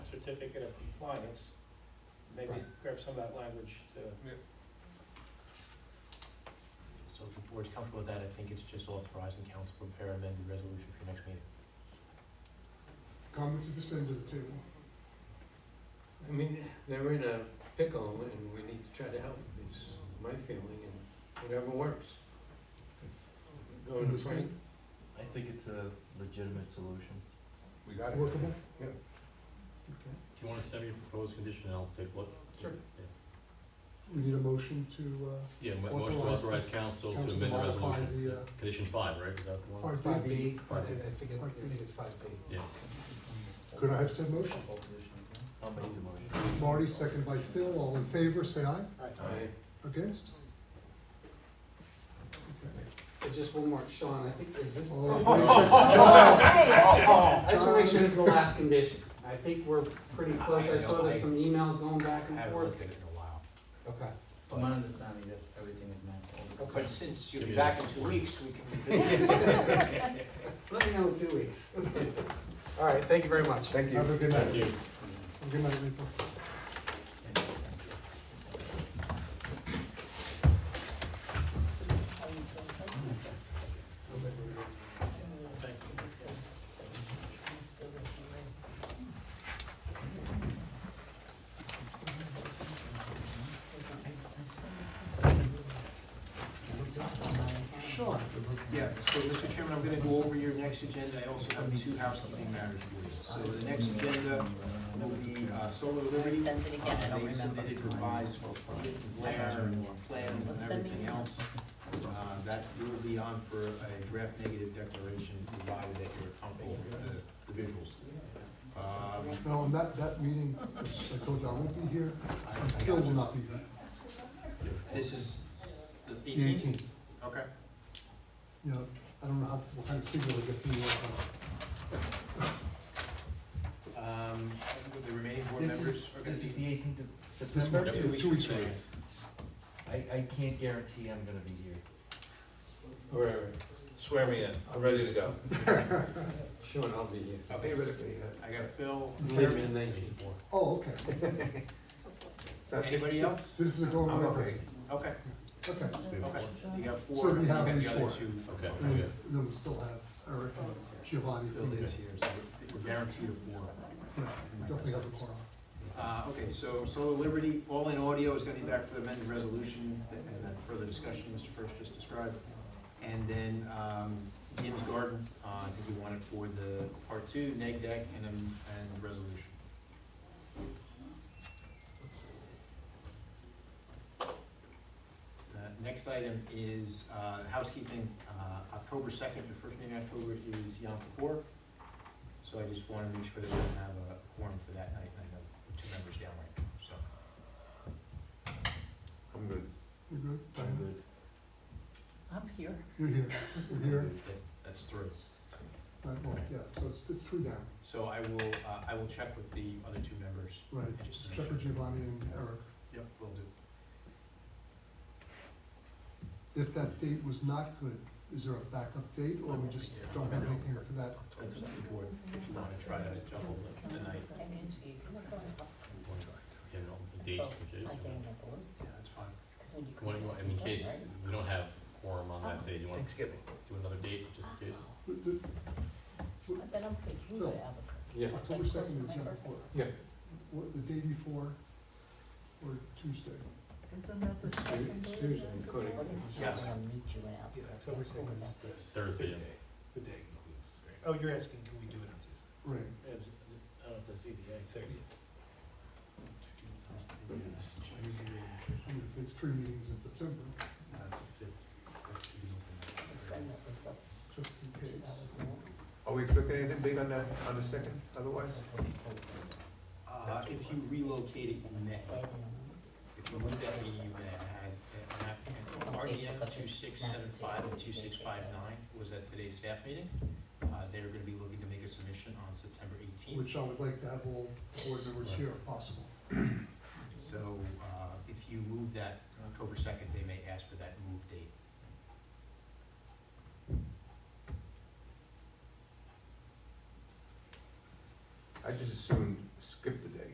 certificate of compliance, maybe Right. grab some of that language to, So if the board's comfortable with that, I think it's just authorizing council to prepare amended resolution for your next meeting. Comments at this end of the table. I mean, they're in a pickle and we need to try to help them. It's my feeling and whatever works. Going to Frank, Understand? I think it's a legitimate solution. We got Workable? Yeah. Okay. Do you want to send me your proposed condition, and I'll take a look? Sure. We need a motion to, uh, Yeah, mo- motion to Authorize the authorize council to council amend the modify resolution. the, uh, Condition five, right, is that the one? five B. I Five B. think, it- I think it's five B. Yeah. Could I have said motion? I'll make the motion. Marty, second by Phil, all in favor, say aye. I, Against? Okay. Just one more, Sean, I think, is this? All in John, favor, John, I just wanna make sure this is the last condition. I think we're pretty close. I saw there's some emails going back I and haven't forth. looked at it in a while. Okay. To my understanding, that everything is meant. all the- But since you'll be back in two weeks, we can revisit Let me know in two weeks. All right, thank you very much. Thank Have a good night. Have a Good night, April. thank you. Sean. Yeah, so Mr. Chairman, I'm gonna go over your next agenda, I also have two housekeeping matters for you. So the next agenda will be uh, Solar Liberty. Send it again, I don't Uh, They remember. submitted revised glare plans and Send me everything your- else. Uh, That you will be on for a draft negative declaration, provided that you're comfortable with the the visuals. Um, No, and that, that meeting, as I told you, I won't be here, I- I and got Phil will you. not be here. This is the The eighteenth? Okay. You know, I don't know how, what kind of signal it gets in your, uh, Um, The remaining board This members is, are gonna this is be, the eighteenth of this September. month, Yep. yeah, two weeks from now. I, I can't guarantee I'm gonna be here. or swear me in, I'm ready to go. Sean, I'll be here. I'll be I got Phil, Leave me in nineteen. Oh, okay, anybody else? so this is a going I'm away okay. person. Okay, Okay, okay, you got So four, we you have got these the other four. two. Okay. and then- then we still have Eric and Giovanni from Phil the, is here, so we're we're guaranteed a four. definitely have a quorum. Uh, okay, so Solar Liberty, All in Audio is gonna be back for the amended resolution and that further discussion Mr. First just described. And then, um, Jim's Garden, uh, I think we want it for the part two, neg deck and, um, and resolution. Uh, next item is, uh, housekeeping, uh, October second, the first meeting in October is Yom Kippur. So I just wanna make sure that we don't have a quorum for that night, and I know two members down right now, so. I'm good. You're good, I'm Diana? good. I'm here. You're here, you're here, That- That's three. right, well, yeah, so it's, it's three down, So I will, uh, I will check with the other two members. right, and just to make Check with sure. Giovanni and Eric. Yep, will do. If that date was not good, is there a backup date, or we just don't have anything for that? That's up to the board, if you wanna try to juggle it tonight. Yeah, no, the date, in case, you know. Yeah, that's fine. What do you want, in case we don't have quorum on that day, you wanna Thanksgiving. do another date, just in case? The- the- Then I'm good, you Phil. go to Albuquerque. Yeah. October second is Yom Kippur. Yeah. What, the day before, or Tuesday? Isn't that the second day? Susan, Cody. Yeah. I'll meet you in Albuquerque. It's Thursday, yeah. the day includes. Oh, you're asking, can we do it on Tuesday? Right, I don't know if the ZBA. I mean, if it's three meetings in September, That's a fifth. That's Tuesday. Friend that lives up just in two case. hours north. Are we expecting anything big on the, on the second, otherwise? Uh, if you relocate it, you may. Right in If you move that meeting, you may uh, have had, RDM two six seven five and two six five nine was at today's staff meeting. Uh, they're gonna be looking to make a submission on September eighteenth. Which I would like to have all board members here if possible. So, uh, if you move that October second, they may ask for that move date. I just assumed